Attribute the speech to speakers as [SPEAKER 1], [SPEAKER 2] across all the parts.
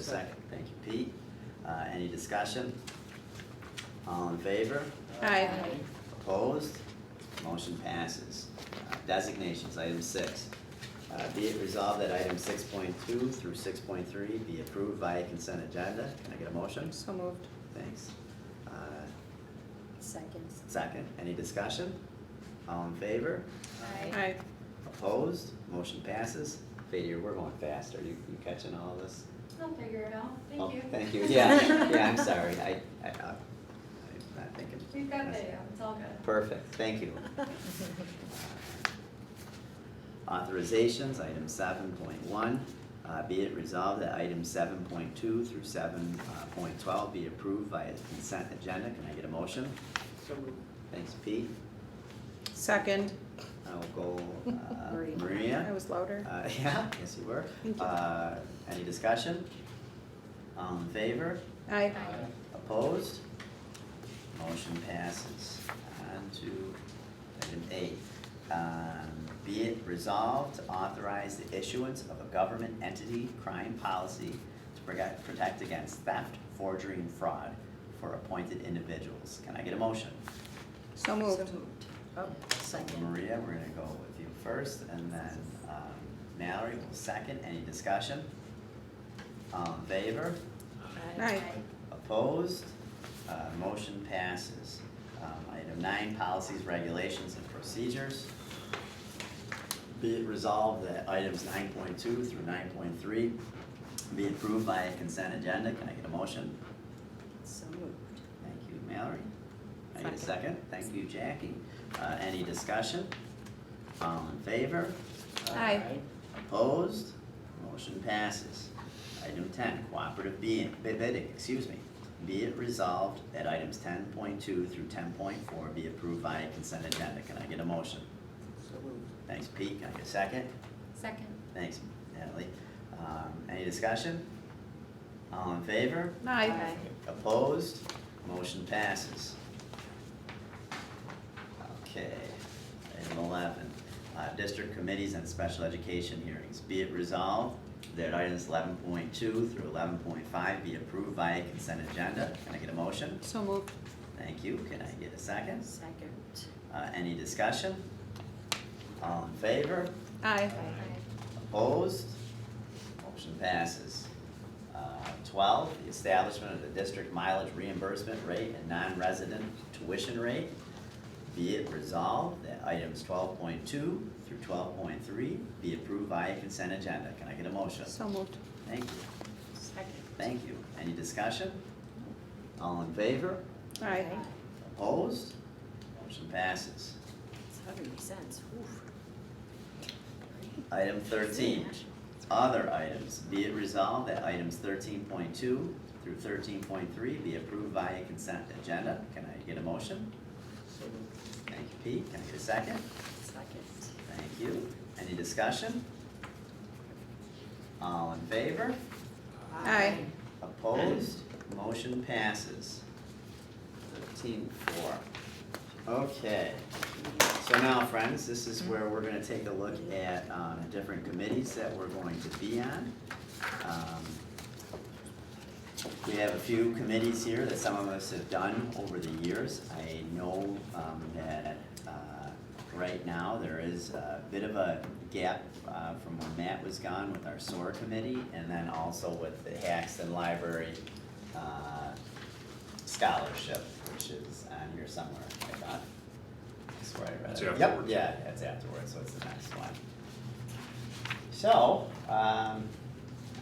[SPEAKER 1] second. Thank you, Pete. Uh, Any discussion? All in favor?
[SPEAKER 2] Aye.
[SPEAKER 1] Opposed? Motion passes. Uh, Designations, item six. Uh, Be it resolved that item six point two through six point three be approved via consent agenda. Can I get a motion?
[SPEAKER 2] So moved.
[SPEAKER 1] Thanks. Uh,
[SPEAKER 3] Seconds.
[SPEAKER 1] Second, any discussion? All in favor?
[SPEAKER 2] Aye.
[SPEAKER 1] Opposed? Motion passes. Fader, we're going fast. Are you you catching all of this?
[SPEAKER 4] I'll figure it out,
[SPEAKER 1] Oh,
[SPEAKER 4] thank you.
[SPEAKER 1] Thank you, yeah, yeah, I'm sorry, I, I, I- I'm not thinking.
[SPEAKER 4] We've got video, it's all good.
[SPEAKER 1] Perfect, thank you. Authorizations, item seven point one, uh, be it resolved that items seven point two through seven uh, point twelve be approved via consent agenda, can I get a motion?
[SPEAKER 5] So moved.
[SPEAKER 1] Thanks Pete,
[SPEAKER 2] Second.
[SPEAKER 1] I will go, uh,
[SPEAKER 3] Maria.
[SPEAKER 1] Maria.
[SPEAKER 2] I was louder.
[SPEAKER 1] Uh, yeah, yes you were.
[SPEAKER 2] Thank you.
[SPEAKER 1] Uh, any discussion? All in favor?
[SPEAKER 2] Aye.
[SPEAKER 1] Opposed? Motion passes. On to item eight. Um, Be it resolved to authorize the issuance of a government entity crime policy to protect, protect against theft, forgery, and fraud for appointed individuals. Can I get a motion?
[SPEAKER 2] So moved.
[SPEAKER 3] Oh, second.
[SPEAKER 1] Maria, we're gonna go with you first, and then um, Mallory will second. Any discussion? All in favor?
[SPEAKER 2] Aye.
[SPEAKER 1] Opposed? Uh, Motion passes. Um, Item nine, policies, regulations, and procedures. Be it resolved that items nine point two through nine point three be approved by a consent agenda. Can I get a motion?
[SPEAKER 3] So moved.
[SPEAKER 1] Thank you, Mallory. I need a second.
[SPEAKER 2] Second.
[SPEAKER 1] Thank you, Jackie. Uh, Any discussion? All in favor?
[SPEAKER 2] Aye.
[SPEAKER 1] Opposed? Motion passes. Item ten, cooperative being- bi- bidding, excuse me. Be it resolved that items ten point two through ten point four be approved via consent agenda. Can I get a motion?
[SPEAKER 5] So moved.
[SPEAKER 1] Thanks, Pete. Can I get a second?
[SPEAKER 4] Second.
[SPEAKER 1] Thanks, Natalie. Um, any discussion? All in favor?
[SPEAKER 2] Aye.
[SPEAKER 3] Aye.
[SPEAKER 1] Opposed? Motion passes. Okay, item eleven, uh, district committees and special education hearings. Be it resolved that items eleven point two through eleven point five be approved via consent agenda. Can I get a motion?
[SPEAKER 2] So moved.
[SPEAKER 1] Thank you. Can I get a second?
[SPEAKER 3] Second.
[SPEAKER 1] Uh, any discussion? All in favor?
[SPEAKER 2] Aye.
[SPEAKER 1] Opposed? Motion passes. Uh, Twelve, the establishment of the district mileage reimbursement rate and non-resident tuition rate. Be it resolved that items twelve point two through twelve point three be approved via consent agenda. Can I get a motion?
[SPEAKER 2] So moved.
[SPEAKER 1] Thank you,
[SPEAKER 3] Second.
[SPEAKER 1] thank you. Any discussion? All in favor?
[SPEAKER 2] Aye.
[SPEAKER 1] Opposed? Motion passes.
[SPEAKER 3] It's hundred cents, oof.
[SPEAKER 1] Item thirteen, other items, be it resolved that items thirteen point two through thirteen point three be approved via consent agenda. Can I get a motion?
[SPEAKER 5] So moved.
[SPEAKER 1] Thank you, Pete. Can I get a second?
[SPEAKER 3] Second.
[SPEAKER 1] Thank you. Any discussion? All in favor?
[SPEAKER 2] Aye.
[SPEAKER 1] Opposed? Motion passes. Thirteen four. Okay, so now, friends, this is where we're gonna take a look at, um, different committees that we're going to be on. Um, We have a few committees here that some of us have done over the years. I know, um, that, uh, right now, there is a bit of a gap, uh, from when Matt was gone with our SOAR committee, and then also with the Haxton Library, uh, scholarship, which is on here somewhere, I thought. That's where I read
[SPEAKER 6] It's
[SPEAKER 1] it. Yep,
[SPEAKER 6] afterwards.
[SPEAKER 1] yeah, that's afterwards, so it's the next one. So, um,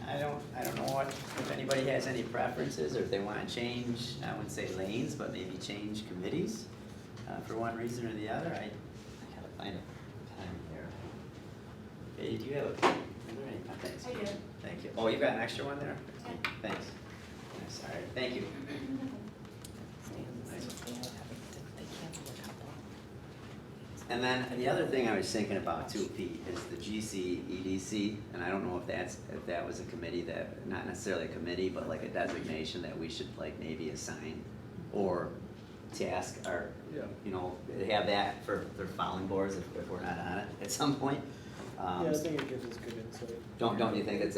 [SPEAKER 1] I don't, I don't know what, if anybody has any preferences, or if they wanna change, I wouldn't say lanes, but maybe change committees, uh, for one reason or the other, I, I gotta find a pen here. Hey, do you have a, pen? are there any pen? Thanks.
[SPEAKER 4] I do.
[SPEAKER 1] Thank you, oh, you've got an extra one there?
[SPEAKER 4] Yeah.
[SPEAKER 1] Thanks, I'm sorry, thank you. And then the other thing I was thinking about too, Pete, is the GC EDC, and I don't know if that's, if that was a committee that, not necessarily a committee, but like a designation that we should like maybe assign or task or,
[SPEAKER 5] Yeah.
[SPEAKER 1] you know, have that for their filing boards if, if we're not on it at some point.
[SPEAKER 5] Yeah,
[SPEAKER 1] Um,
[SPEAKER 5] I think it gives us good insight.
[SPEAKER 1] Don't, don't you think that's a